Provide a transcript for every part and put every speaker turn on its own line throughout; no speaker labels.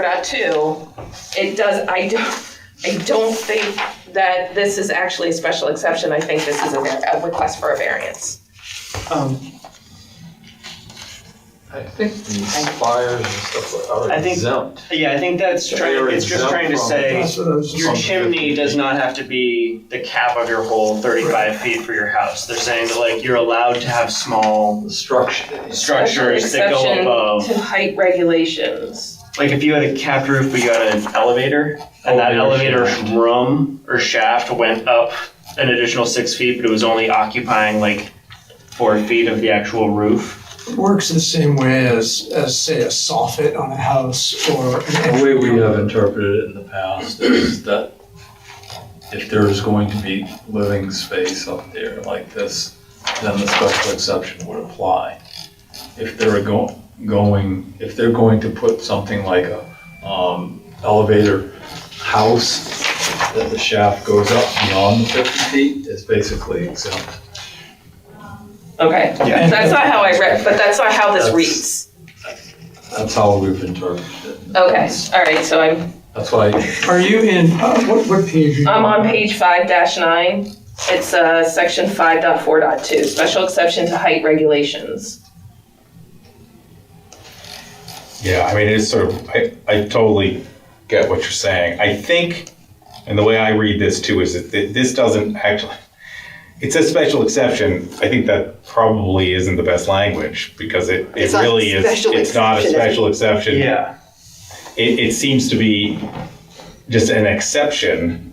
about too, it does, I don't, I don't think that this is actually a special exception, I think this is a, var- a request for a variance.
Um,
I think these fires and stuff are
I think-
exempt.
yeah, I think that's
They
trying,
are
it's just
exempt
trying to
from-
say,
That's what I was just-
your
From
chimney
50
does
feet.
not have to be the cap of your whole thirty-five feet for your house. They're saying that like, you're allowed to have small
The structure.
structures that
Special
go
exception
above.
To height regulations.
Like if you had a capped roof, but you had an elevator, and that
Elevator
elevator
shaft.
room or shaft went up an additional six feet, but it was only occupying like four feet of the actual roof.
It Works the same way as, as say a soffit on a house or an
The way we have interpreted it in the past is that if there is going to be living space up there like this, then the special exception would apply. If they're go- going, if they're going to put something like a, um, elevator house, that the shaft goes up beyond the fifty feet, it's basically exempt.
Okay,
Yeah.
that's not how I read, but that's not how this
That's-
reads.
That's how we've interpreted it.
Okay, all right, so I'm,
That's why
Are you in, uh, what, what page? are you
I'm on page five dash nine. It's, uh, section five dot four dot two, special exception to height regulations.
Yeah, I mean, it is sort of, I, I totally get what you're saying. I think, and the way I read this too, is that th- this doesn't actually, it's a special exception. I think that probably isn't the best language because it, it
It's not
really is,
special
it's not a
exception, is it?
special exception.
Yeah.
It, it seems to be just an exception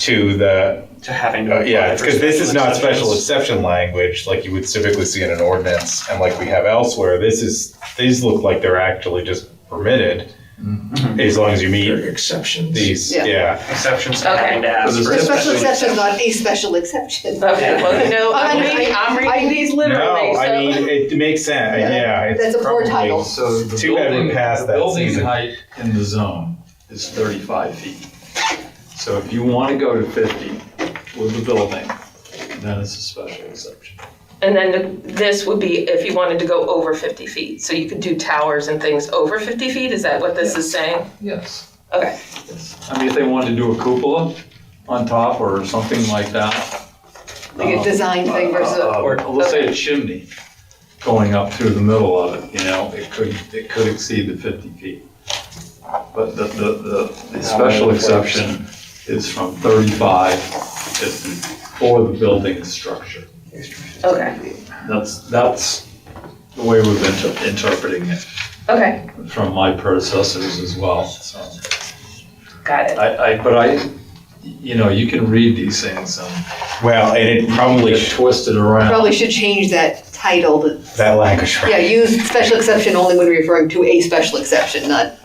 to the,
To having to.
uh, yeah,
apply
because
for
this is not special
exceptions.
exception language like you would typically see in an ordinance and like we have elsewhere. This is, these look like they're actually just permitted
Mm-hmm.
as long as you
on?
meet
Exceptions.
these,
Yeah.
yeah.
Exceptions to
Okay.
having to ask for.
The
a
special exception's not a special exception.
Okay, well, no, I'm
I-
reading, I'm
I-
reading these literally,
No,
so.
I mean, it makes sense,
Yeah.
yeah. it's
That's a poor
probably-
title.
So the
Too bad we
building,
passed
the
that
building
season.
height in the zone is thirty-five feet. So if you want to go to fifty with the building, then it's a special exception.
And then the- this would be if you wanted to go over 50 feet. So you could do towers and things over 50 feet? Is that what this is saying?
Yes.
Okay.
Yes. I mean, if they wanted to do a cupola on top or something like that.
Like a
Oh.
um,
design thing versus
uh,
a.
Or let's say a chimney going up through the middle of it, you know, it could, it could exceed the fifty feet. But the, the, the, the special exception is from thirty-five, it's for the building structure.
Okay.
That's, that's the way we've been inter- interpreting it
Okay.
from my predecessors as well, so.
Got it.
I, I, but I, you know, you can read these things and
Well, and it probably,
get
sh-
twisted around.
Probably should change that title to,
that language,
yeah,
right?
use special exception only when referring to a special exception, not,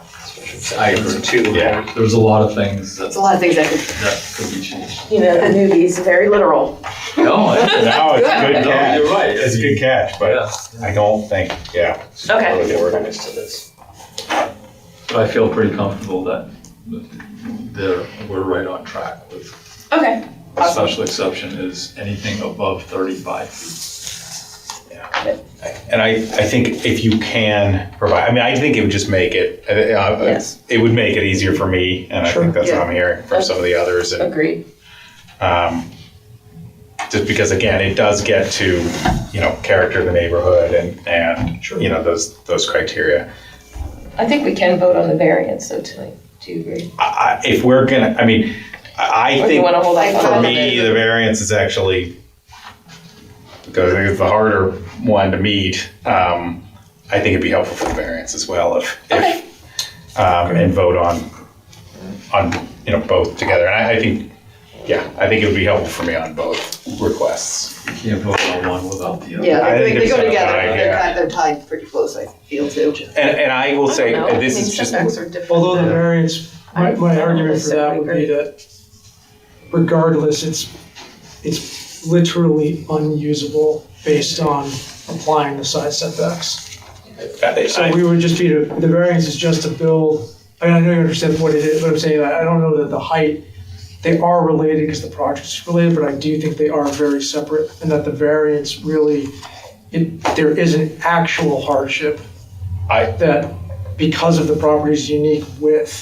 I agree.
Two.
Yeah.
There's a lot of things that,
it's a lot of things that could,
that could be changed.
You know, the newbies, very literal.
No, I-
No, it's a
no,
good
you're
catch.
right.
It's a good catch, but
Yeah.
I don't think, yeah. it's
Okay.
really organized to this.
But I feel pretty comfortable that there, we're right on track with,
Okay.
a special exception is anything above thirty-five feet.
And I, I think if you can provide, I mean, I think it would just make it, uh, uh,
Yes.
it would make it easier for me, and I
Sure.
think that's what
Yeah.
I'm hearing from some of the others, and
Agreed.
um, just because again, it does get to you know character of the neighborhood and and
Sure.
you know those those criteria.
I think we can vote on the variance though tonight. Do you agree?
I, I, if we're gonna, I mean, I, I
Or do Oh, you
think
want to hold off
for
on that?
me the variance is actually because I think it's the harder one to meet. Um, I think it'd be helpful for the variance as well if, if
Okay.
um, and vote on on you know both together. And I, I think yeah, I think it would be helpful for me on both requests.
You can't vote on one without the other.
yeah,
I
they
think
they
it's
go
not
together,
right,
they're
yeah.
kind, they're tied pretty close, I feel too.
And, and I will say,
I don't know.
and this
I mean,
is just,
setbacks are different.
Although the variance, my, my argument for that would be that regardless, it's, it's literally unusable based on applying the side setbacks. So
I,
we would just be, to- the variance is just to build, I mean, I know you understand what it is, but I'm saying, I I don't know that the height, they are related because the project's related, but I do think they are very separate and that the variance really, it, there is an actual hardship
I-
that because of the property's unique width.